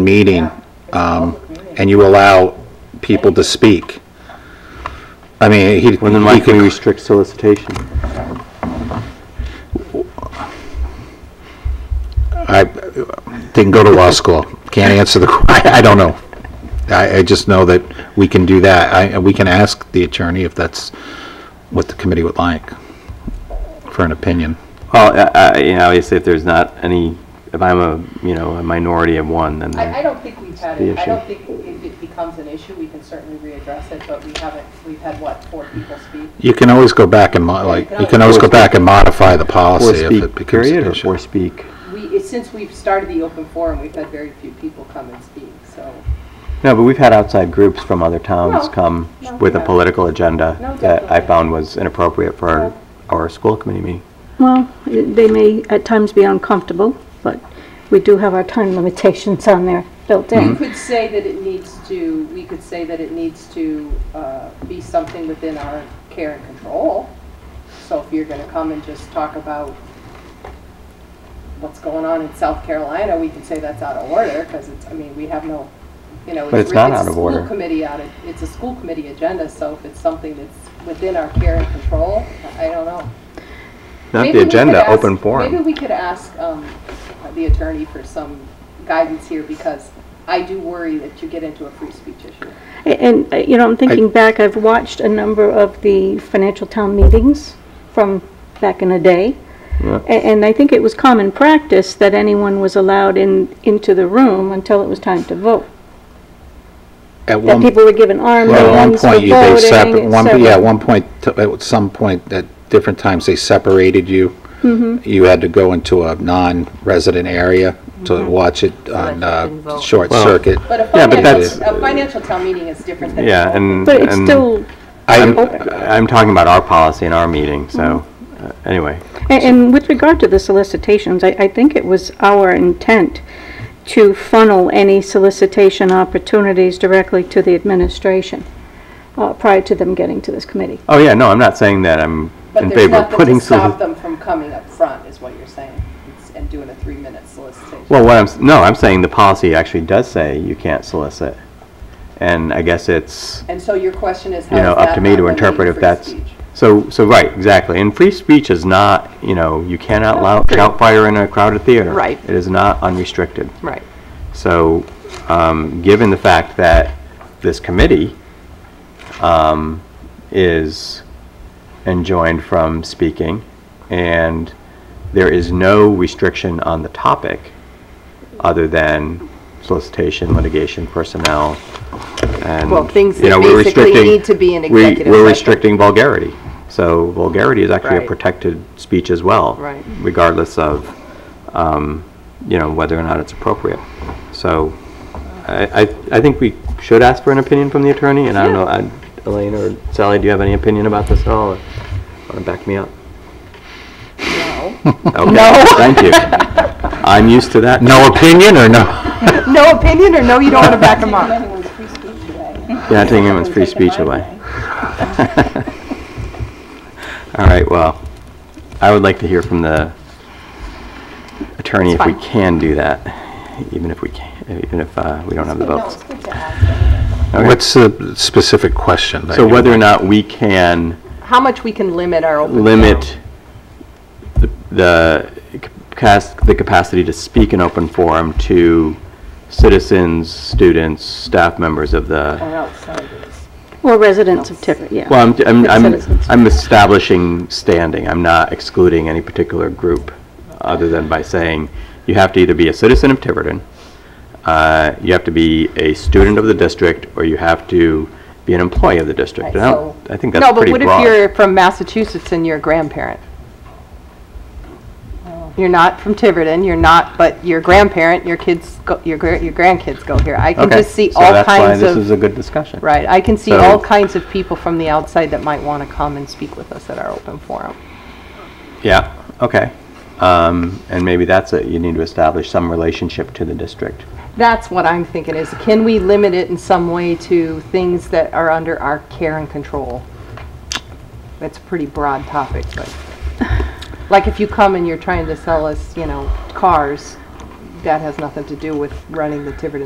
meeting, um, and you allow people to speak. I mean, he, he Well, then why can we could, restrict solicitation? I, didn't go to law school, can't answer the, que- I, I don't know. I, I just know that we can do that, I, we can ask the attorney if that's what the committee would like for an opinion. Well, I- I- you know, obviously, if there's not any, if I'm a, you know, a minority of one, then I, I don't think we've had The it, I don't issue. think if it becomes an issue, we can certainly readdress it, but we haven't, we've had, what, four people speak? You can always go back and, mo- like, you can always go back and modify the four policy if speak it becomes period an or issue. four speak? We, it's since we've started the open forum, we've had very few people come and speak, so, No, but we've had outside groups from other towns No, come no, with a yeah. political agenda No, that I definitely. found was inappropriate for our, our school committee meeting. Well, they may at times be uncomfortable, but we do have our time limitations on there built we in. Mm-hmm. could say that it needs to, we could say that it needs to, uh, be something within our care and control. So if you're gonna come and just talk about what's going on in South Carolina, we can say that's out of order, because it's, I mean, we have no, you know. But it's re- not out a of school order. Committee out of, it's a school committee agenda, so if it's something that's within our care and control, I I don't know. Not Maybe the we could agenda, ask- open Maybe forum. we could ask um, the attorney for some guidance here, because I do worry that you get into a free speech issue. Mm-hmm. And, uh, you know, I'm thinking back, I've watched a number of the financial town meetings from back in the day. Yeah. A- And I think it was common practice that anyone was allowed in, into the room until it was time to vote. At That one people were given arms Well, and at one ones for point, you- they voting, separ, et one, yeah, cetera. at one point, t- at some point, at different times, they separated you. Mm-hmm. You had to go into a non-resident area to watch it on, uh, short Well- circuit. But a Yeah, but financial, that's- a financial town meeting is different than. Yeah, and. But it's and still, I'm, open. I'm talking about our policy in our meeting, so, Mm-hmm. uh, anyway. A- And with regard to the solicitations, I, I think it was our intent to funnel any solicitation opportunities directly to the administration uh, prior to them getting to this committee. Oh, yeah, no, I'm not saying that I'm But in there's favor of nothing putting. to stop solici- them from coming up front, is what you're saying, it's- and doing a three-minute solicitation. Well, what I'm, s- no, I'm saying the policy actually does say you can't solicit. And I guess it's, And so your question is, how you Oh, is know, that up to me not to limiting interpret if free that's. speech? So, so, right, exactly. And free speech is not, you know, you cannot lou- shout fire in a crowded theater. Right. It is not unrestricted. Right. So, um, given the fact that this committee, um, is enjoined from speaking, and there is no restriction on the topic other than solicitation, litigation, personnel, and, Well, things you know, that we're basically restricting- need to be in we- executive We're session. restricting vulgarity. So vulgarity is actually a Right. protected speech as well. Right. Regardless of, um, you know, whether or not it's appropriate. So I, I- I think we should ask for an opinion from the attorney, and I don't know, I- Elaine or Sally, do you have any opinion about this at all? or Want to back me up? No. Okay, thank you. I'm used to that. No opinion or no? No opinion or no, you don't want to back them up? Anyone's free speech today. You're not taking anyone's free Taking speech mine away. All right, well, I would like to hear from the attorney if That's we fine. can do that, even if we can, even if uh, we don't have the No, it's votes. good to ask. Okay. What's the specific question? that So you- whether or not we can How much we can limit our open. limit the- the, cas- the capacity to speak in open forum to citizens, students, staff members of the, Or outsiders. Or residents of Tiverton, yeah. well, I'm- I'm, Like I'm, citizens. I'm establishing standing, I'm not excluding any particular group, other than by saying, you have to either be a citizen of Tiverton, uh, you have to be a student of the district, or you have to be an employee of the district. And I don't- I think that's pretty No, broad. but what if you're from Massachusetts and you're a grandparent? You're not from Tiverton, you're not, but your grandparent, your kids, go- your gra- your grandkids go here. I can Okay, just see all So kinds that's why this is of, a good discussion. right, I can see all So- kinds of people from the outside that might want to come and speak with us at our open forum. Yeah, okay. Um, and maybe that's it, you need to establish some relationship to the district. That's what I'm thinking is, can we limit it in some way to things that are under our care and control? That's a pretty broad topic, but, like if you come and you're trying to sell us, you know, cars, that has nothing to do with running the Tiverton